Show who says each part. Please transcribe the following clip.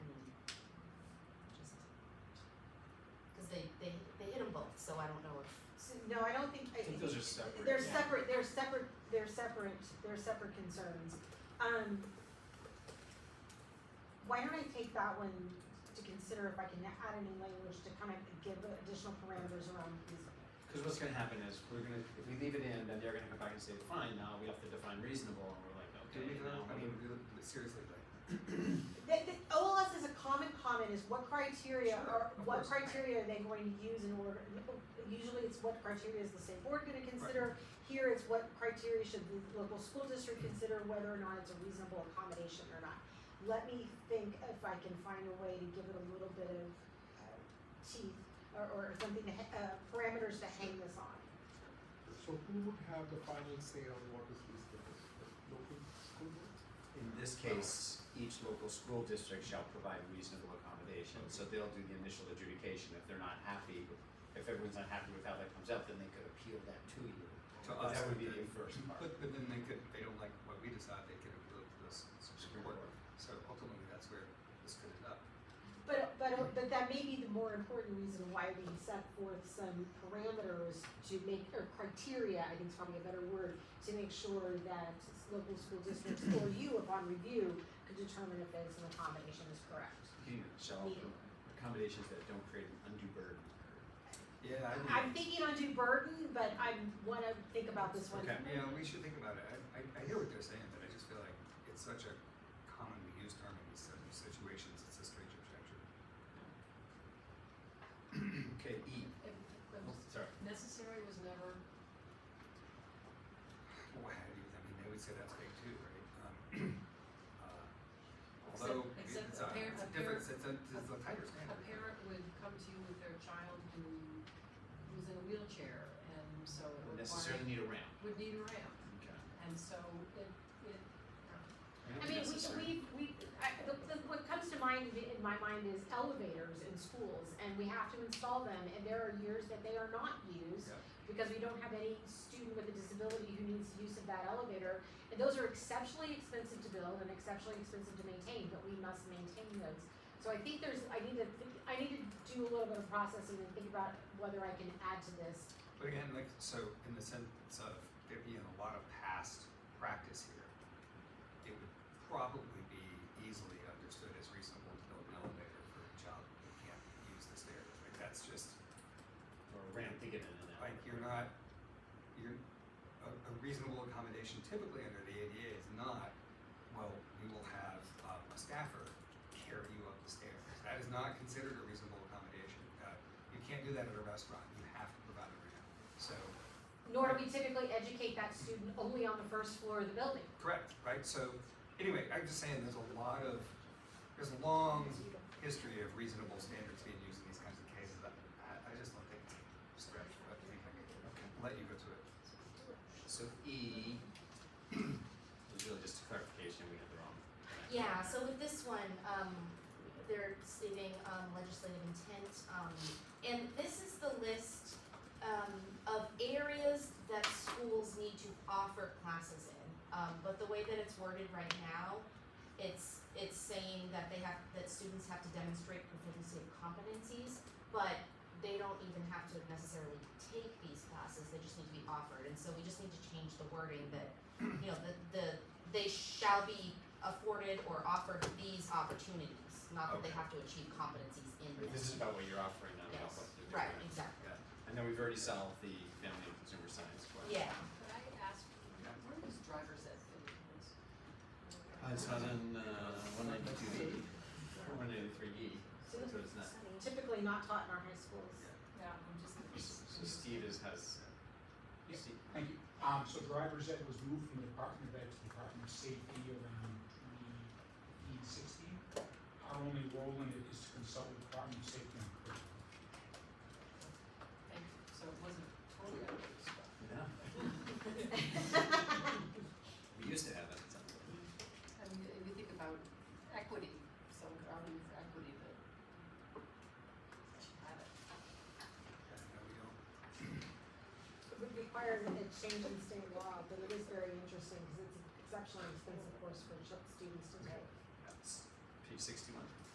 Speaker 1: so I don't know if,
Speaker 2: So, no, I don't think, I
Speaker 3: I think those are separate.
Speaker 2: they're
Speaker 1: yeah.
Speaker 2: separate, they're separate, they're separate, they're separate concerns. Um, why don't I take that one to consider if I can add any language to kind of give additional parameters around these?
Speaker 3: Because what's gonna happen is we're gonna, if we leave it in, then they're gonna come back and say, fine, now we have to define reasonable, and we're like,
Speaker 4: Do we
Speaker 3: okay,
Speaker 4: know,
Speaker 3: now.
Speaker 4: I mean, really, seriously, like,
Speaker 2: The, the OLS is a common comment is what criteria
Speaker 4: Sure,
Speaker 2: are,
Speaker 4: of
Speaker 2: what
Speaker 4: course.
Speaker 2: criteria are they going to use in order, usually it's what criteria is the state board gonna consider? Here it's what criteria should the local school district consider whether or not it's a reasonable accommodation or not. Let me think if I can find a way to give it a little bit of uh, teeth or, or something to, ha- uh, parameters to hang this on.
Speaker 5: So who would have the final say on what is reasonable? The Local school board?
Speaker 3: In this case, each local school district shall provide reasonable accommodation, so they'll do the initial adjudication, if they're not happy, if everyone's not happy with how that comes out, then they could appeal that to you.
Speaker 4: To
Speaker 3: But
Speaker 4: us,
Speaker 3: That would be the
Speaker 4: then-
Speaker 3: first part.
Speaker 4: but, but then they could, they don't like what we decide, they could appeal to the Supreme Court. So ultimately, that's where this could end up.
Speaker 2: But, but, but that may be the more important reason why we set forth some parameters to make, or criteria, I think is probably a better word, to make sure that local school districts or you upon review could determine if there's an accommodation is correct.
Speaker 3: You know, Shall,
Speaker 2: Meeting.
Speaker 3: accommodations that don't create an undue burden.
Speaker 4: Yeah, I think.
Speaker 2: I'm thinking undue burden, but I wanna think about this one.
Speaker 3: Okay.
Speaker 4: Yeah, we should think about it. I, I, I hear what they're saying, but I just feel like it's such a commonly used term in these sort of situations. It's a strange objection.
Speaker 3: Okay, E,
Speaker 6: If if
Speaker 3: Oh, sorry.
Speaker 6: necessary was never,
Speaker 4: Well, how do you, I mean, they would say that's big too, right? Um, uh,
Speaker 6: Except-
Speaker 4: although
Speaker 6: except
Speaker 4: it's a,
Speaker 6: a parent-
Speaker 4: it's a
Speaker 6: a
Speaker 4: different,
Speaker 6: parent-
Speaker 4: it's a, it's a tighter
Speaker 6: a
Speaker 4: standard.
Speaker 6: parent would come to you with their child who was in a wheelchair and so it
Speaker 3: Would
Speaker 6: would
Speaker 3: necessarily
Speaker 6: require,
Speaker 3: need a ramp.
Speaker 6: would need a ramp.
Speaker 3: Okay.
Speaker 6: And so it, it,
Speaker 2: I mean, we,
Speaker 3: Necessary.
Speaker 2: we, we, I, the, the, what comes to mind in in my mind is elevators in schools, and we have to install them, and there are years that they are not used,
Speaker 4: Yeah.
Speaker 2: because we don't have any student with a disability who needs use of that elevator, and those are exceptionally expensive to build and exceptionally expensive to maintain, but we must maintain those. So I think there's, I need to, think- I need to do a little bit of processing and think about whether I can add to this
Speaker 4: But again, like, so in the sense of there being a lot of past practice here, it would probably be easily understood as reasonable to build an elevator for a child who can't use the stairs. Like, that's just,
Speaker 3: Or a ramp to get in and out.
Speaker 4: like, you're not, you're, a, a reasonable accommodation typically under the ADA is not, well, we will have, um, a staffer carry you up the stairs. That is not considered a reasonable accommodation. Uh, you can't do that at a restaurant. You have to provide a ramp. So,
Speaker 2: nor do we typically educate that student only on the first floor of the building.
Speaker 4: Correct, right? So, anyway, I'm just saying there's a lot of, there's a long history of reasonable standards being used in these kinds of cases. I, I I just don't think it's a stretch, but I think I can let you go to it.
Speaker 3: So E was really just a clarification, we had the wrong.
Speaker 1: yeah, so with this one, um, they're stating, um, legislative intent, um, and this is the list, um, of areas that schools need to offer classes in. Um, but the way that it's worded right now, it's, it's saying that they have, that students have to demonstrate proficiency of competencies, but they don't even have to necessarily take these classes, they just need to be offered, and so we just need to change the wording that, you know, the, the, they shall be afforded or offered these opportunities, not that they
Speaker 4: Okay.
Speaker 1: have to achieve competencies in
Speaker 3: But This
Speaker 1: this.
Speaker 3: is about what you're offering, not about
Speaker 1: Yes.
Speaker 3: what you're doing.
Speaker 1: Right, exactly,
Speaker 3: And then we've already solved the family and consumer science question.
Speaker 1: yeah,
Speaker 6: could I ask, where does driver's ed fit into this?
Speaker 3: Uh, it's not in, uh, one ninety-two E, or one ninety-three E, so
Speaker 2: So-
Speaker 3: it's not.
Speaker 2: Typically not taught in our high schools.
Speaker 6: Yeah, I'm just
Speaker 3: So Steve is, has,
Speaker 5: Yeah.
Speaker 3: Steve,
Speaker 5: Thank you. Um, so driver's ed was moved from the Department of Ed to the Department of Safety around twenty sixteen. Our only role in it is to consult with the Department of Safety on curriculum.
Speaker 6: Thank you, so it wasn't totally out of the spot.
Speaker 3: no, we used to have that, it's not.
Speaker 6: I mean, if you think about equity, someone could argue for equity, but I don't-
Speaker 4: Yeah, no, we don't.
Speaker 2: It would require a change in state law, but it is very interesting because it's an exceptionally expensive course for ch- students to take.
Speaker 3: That's page sixty-one.